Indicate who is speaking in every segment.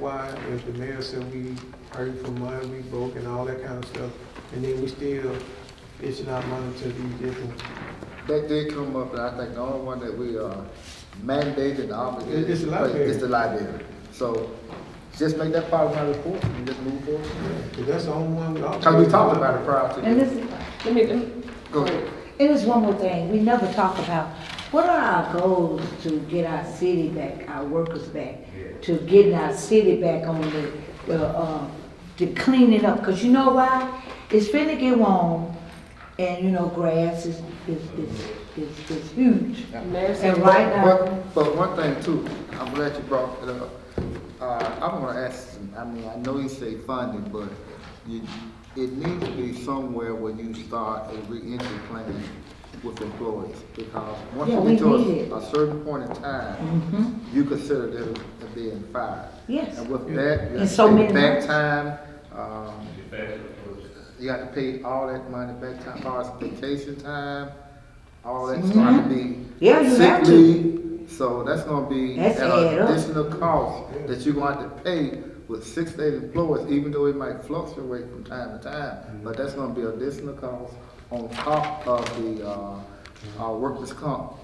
Speaker 1: why if the mayor said we hurting for money, we broke and all that kind of stuff, and then we still it's not money to these different,
Speaker 2: That did come up, and I think the only one that we are mandated and obligated.
Speaker 1: It's the
Speaker 2: to pay
Speaker 1: library.
Speaker 2: is the library. So just make that part of my report and just move forward.
Speaker 1: because that's the only one.
Speaker 2: Cause we talked about it prior to.
Speaker 3: And
Speaker 2: this.
Speaker 3: this, let me, let me-
Speaker 2: Go ahead.
Speaker 4: And there's one more thing, we never talk about, what are our goals to get our city back, our workers back? To getting our city back on the, the, uh, to clean it up, cause you know why? It's finna get warm, and you know, grass is, is, is, is, is huge.
Speaker 3: Mayor
Speaker 4: And
Speaker 3: said,
Speaker 4: right now,
Speaker 2: But, but one thing too, I'm glad you brought it up. Uh, I'm gonna ask, I mean, I know you say funding, but you, it needs to be somewhere where you start a reentry plan with employees. Because once
Speaker 4: Yeah,
Speaker 2: you
Speaker 4: we
Speaker 2: get to
Speaker 4: need it. Mm-hmm.
Speaker 2: a- a certain point in time, you consider them as being fired.
Speaker 4: Yes.
Speaker 2: And with that, you
Speaker 4: And so
Speaker 2: have to pay
Speaker 4: many
Speaker 2: back
Speaker 4: months.
Speaker 2: time, um, you got to pay all that money back time, far as vacation time, all that's gonna
Speaker 4: Mm-hmm.
Speaker 2: be.
Speaker 4: Yeah, you
Speaker 2: sick
Speaker 4: have to.
Speaker 2: leave. So that's gonna be
Speaker 4: That's
Speaker 2: at
Speaker 4: add
Speaker 2: an
Speaker 4: up.
Speaker 2: additional cost that you're gonna have to pay with six day employees, even though it might fluctuate from time to
Speaker 3: Mm-hmm.
Speaker 2: time. But that's gonna be additional cost on top of the, uh, uh, workers' comp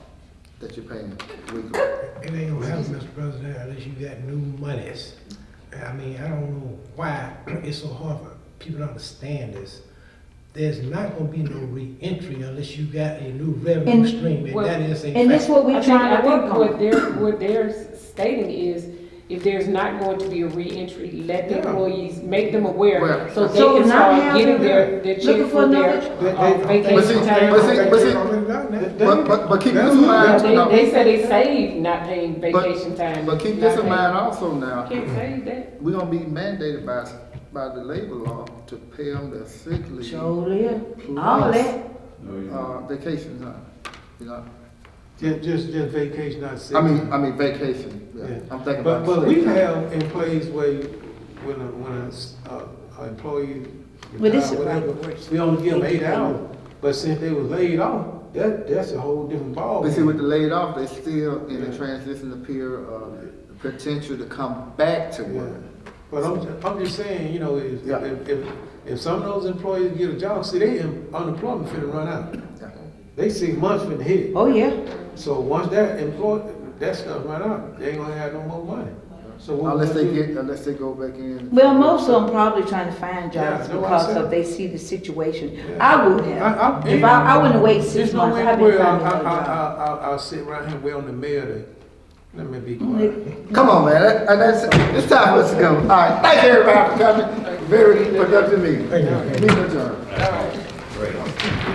Speaker 2: that you're paying weekly.
Speaker 5: It ain't gonna happen, Mr. President, unless you got new monies. I mean, I don't know why it's so hard for people to understand this. There's not gonna be no reentry unless you got a new revenue
Speaker 4: And-
Speaker 5: stream, and
Speaker 3: well,
Speaker 5: that is a fact.
Speaker 4: and that's what
Speaker 3: I
Speaker 4: we're
Speaker 3: think, I
Speaker 4: trying to
Speaker 3: think
Speaker 4: work
Speaker 3: what
Speaker 4: on.
Speaker 3: they're, what they're stating is, if there's not going to be a reentry, let the
Speaker 1: Yeah.
Speaker 3: employees, make them aware,
Speaker 2: Well-
Speaker 3: so they
Speaker 4: So not
Speaker 3: can start
Speaker 4: having
Speaker 3: getting their,
Speaker 4: them
Speaker 3: their
Speaker 4: looking
Speaker 3: check
Speaker 4: for
Speaker 3: for their
Speaker 4: another-
Speaker 1: They- they-
Speaker 3: uh,
Speaker 2: But see-
Speaker 3: vacation
Speaker 2: but
Speaker 3: time.
Speaker 2: see- But, but, but keep this in
Speaker 3: Yeah,
Speaker 2: mind. no,
Speaker 3: They, they said they saved not paying
Speaker 2: but-
Speaker 3: vacation time.
Speaker 2: But keep this
Speaker 3: not
Speaker 2: in
Speaker 3: paying-
Speaker 2: mind also now.
Speaker 3: Can't save that.
Speaker 2: We're gonna be mandated by, by the labor law to pay them their sick leave,
Speaker 4: Sure, yeah, all that,
Speaker 2: uh, vacation time, you know?
Speaker 1: Just, just, just vacation, not sick.
Speaker 2: I mean, I mean vacation,
Speaker 1: Yeah.
Speaker 2: yeah, I'm thinking
Speaker 1: But,
Speaker 2: about.
Speaker 1: but
Speaker 2: sick
Speaker 1: we
Speaker 2: time.
Speaker 1: have employees where, you- when a, when a, s- a- a employee,
Speaker 4: Well, this is
Speaker 1: retired,
Speaker 4: right.
Speaker 1: whatever, we only give them eight hours. But since they was laid off, that, that's a whole different
Speaker 2: But see, with
Speaker 1: ballgame.
Speaker 2: the laid off, they still in
Speaker 1: Yeah.
Speaker 2: the transition period of potential to come back to
Speaker 1: Yeah.
Speaker 2: work.
Speaker 1: But I'm, ju- I'm just saying, you know, if,
Speaker 2: Yeah.
Speaker 1: if, if, if some of those employees get a job, see, they em- unemployment finna run out.
Speaker 2: Yeah.
Speaker 1: They six months finna hit.
Speaker 4: oh, yeah.
Speaker 1: So once that employ, that stuff run out, they ain't gonna have no more money. So what we
Speaker 2: Unless they
Speaker 1: gonna do?
Speaker 2: get, unless they go back in.
Speaker 4: Well, most of them probably trying to find jobs
Speaker 1: Yeah, no, I
Speaker 4: because
Speaker 1: said-
Speaker 4: of they see the situation.
Speaker 1: Yeah.
Speaker 4: I would
Speaker 1: I-
Speaker 4: have. If I, I wouldn't wait six
Speaker 1: There's no
Speaker 4: months,
Speaker 1: way in
Speaker 4: I'd
Speaker 1: the
Speaker 4: be
Speaker 1: world
Speaker 4: finding
Speaker 1: I,
Speaker 4: another
Speaker 1: I,
Speaker 4: job.
Speaker 1: I, I, I'll sit right here and wait on the mayor to, let me be quiet.
Speaker 4: Like,
Speaker 2: Come on, man, that, and that's, it's time for us to go. All right, thank everybody for coming, very productive meeting.
Speaker 5: Thank you.
Speaker 2: Meeting adjourned.
Speaker 6: Great.